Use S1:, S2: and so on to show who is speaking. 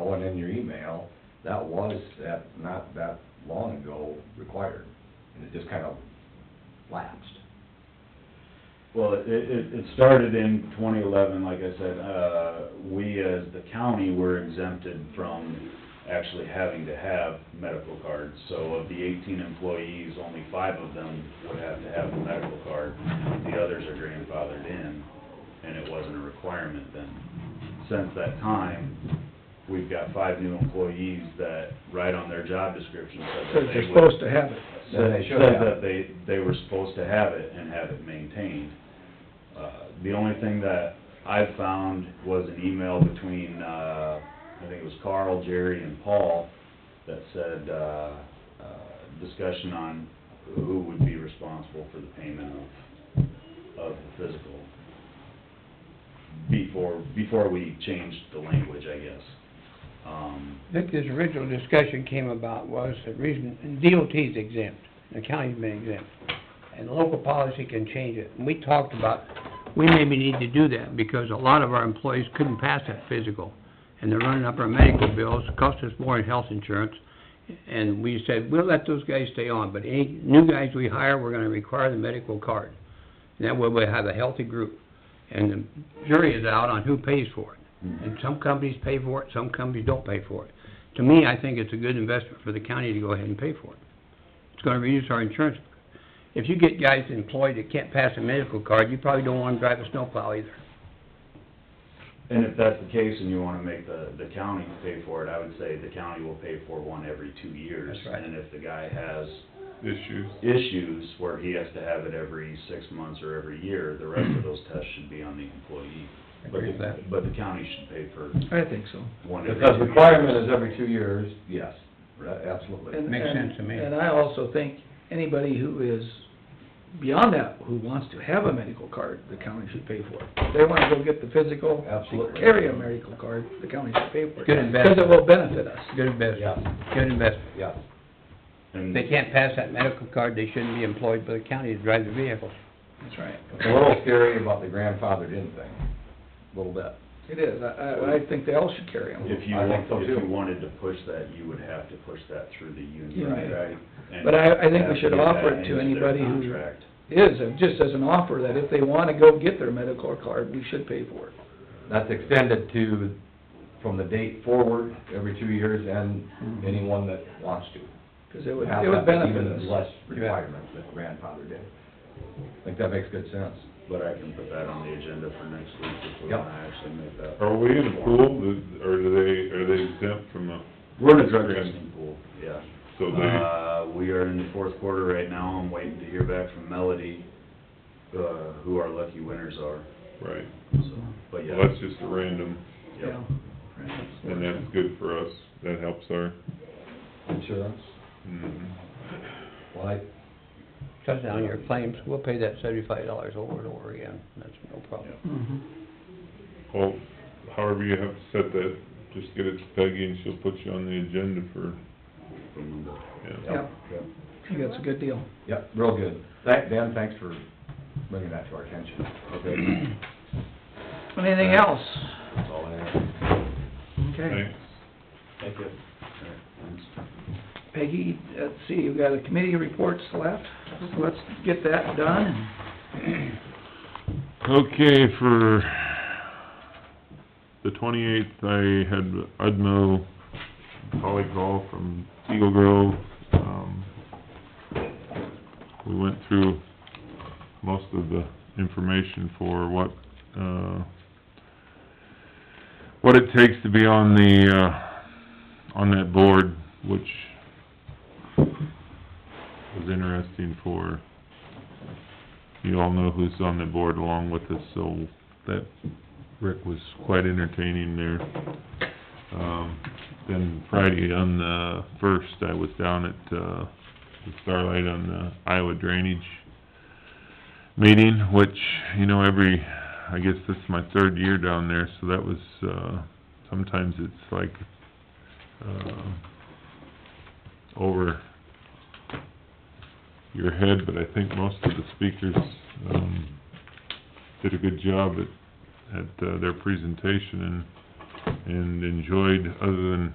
S1: on in your email, that was, that, not that long ago, required. And it just kind of lapsed.
S2: Well, it, it, it started in twenty eleven, like I said, uh, we as the county were exempted from actually having to have medical cards. So of the eighteen employees, only five of them would have to have a medical card. The others are grandfathered in, and it wasn't a requirement then. Since that time, we've got five new employees that right on their job description said that
S3: Because
S2: they
S3: you're
S2: would-
S3: supposed to have it.
S1: Then they
S2: said
S1: should
S2: said
S1: have.
S2: that they, they were supposed to have it and have it maintained. Uh, The only thing that I've found was an email between, uh, I think it was Carl, Jerry, and Paul that said, uh, uh, discussion on who would be responsible for the payment of, of the physical before, before we changed the language, I guess. Um,
S3: I think this original discussion came about was the reason, and DOT's exempt, the county's been exempt, and local policy can change it. And we talked about, we maybe need to do that, because a lot of our employees couldn't pass that physical, and they're running up our medical bills, cost us more in health insurance, and we said, we'll let those guys stay on, but any new guys we hire, we're gonna require the medical card. And that way we have a healthy group, and the jury is out on who pays for it. And some companies pay for it, some companies don't pay for it. To me, I think it's a good investment for the county to go ahead and pay for it. It's gonna reduce our insurance. If you get guys employed that can't pass a medical card, you probably don't want them drive a snowplow either.
S2: And if that's the case and you wanna make the, the county pay for it, I would say the county will pay for one every two years.
S3: That's right.
S2: And if the guy has
S4: issues.
S2: issues where he has to have it every six months or every year, the rest of those tests should be on the employee. But
S3: Agree with
S2: the-
S3: that.
S2: But the county should pay for
S4: I think so.
S2: one every two
S1: Because
S2: years.
S1: requirement is every two years, yes, a- absolutely.
S4: And-
S3: Makes
S4: and-
S3: sense to me.
S4: And I also think anybody who is beyond that, who wants to have a medical card, the county should pay for it. If they wanna go get the physical,
S1: Absolutely.
S4: carry a medical card, the county should pay for it.
S3: Good investment.
S4: Because it will benefit us.
S3: Good investment,
S1: Yeah,
S3: good investment.
S1: yeah.
S3: If
S2: And
S3: they can't pass that medical card, they shouldn't be employed by the county to drive the vehicle.
S4: That's right.
S1: It's a little scary about the grandfathered in thing, a little bit.
S4: It is, I, I, I think they all should carry them.
S2: if you,
S1: I think so
S2: if you
S1: too.
S2: wanted to push that, you would have to push that through the union.
S4: Right.
S1: Right.
S2: And
S4: But I- I think we
S2: have to
S4: should
S2: get that
S4: offer it to
S2: into their
S4: anybody who-
S2: contract.
S4: Is, uh, just as an offer, that if they wanna go get their medical card, we should pay for it.
S1: That's extended to, from the date forward, every two years, and anyone that wants to.
S4: Cause it would,
S1: Have
S4: it would
S1: that
S4: benefit
S1: Even
S4: us.
S1: less requirements than grandfathered in. I think that makes good sense.
S2: But I can put that on the agenda for next week if we
S1: Yep.
S2: wanna actually make that.
S5: Are we in a pool, Is- or do they, are they exempt from the,
S2: We're in a drug testing pool, yeah.
S5: so they,
S2: Uh, we are in the fourth quarter right now, I'm waiting to hear back from Melody, uh, who our lucky winners are,
S5: right,
S2: so, but yeah.
S5: well, that's just a random,
S2: yeah.
S5: and that's good for us, that helps our,
S1: Insurance,
S5: mhm.
S1: like,
S3: Cut down your claims, we'll pay that seventy-five dollars over and over again, that's no problem.
S4: Mhm.
S5: well, however you have to set that, just get it to Peggy and she'll put you on the agenda for,
S2: From the-
S5: yeah.
S4: Yeah,
S1: yep, yep,
S4: I think that's a good deal.
S1: yep, real good. Thank, Dan, thanks for bringing that to our attention.
S2: Okay,
S4: Anything else?
S1: That's all I have.
S4: Okay.
S5: Thanks.
S2: thank you. All right, thanks.
S4: Peggy, let's see, we've got a committee reports left, so let's get that done.
S5: Okay, for the twenty-eighth, I had Udmo Holly call from Eagle Grove. Um, We went through most of the information for what, uh, what it takes to be on the, uh, on that board, which was interesting for you all know who's on the board along with us, so that, Rick was quite entertaining there. Um, then Friday on the first, I was down at, uh, the Starlight on the Iowa Drainage meeting, which, you know, every, I guess this is my third year down there, so that was, uh, sometimes it's like, uh, over your head, but I think most of the speakers, um, did a good job at, at uh, their presentation and, and enjoyed, other than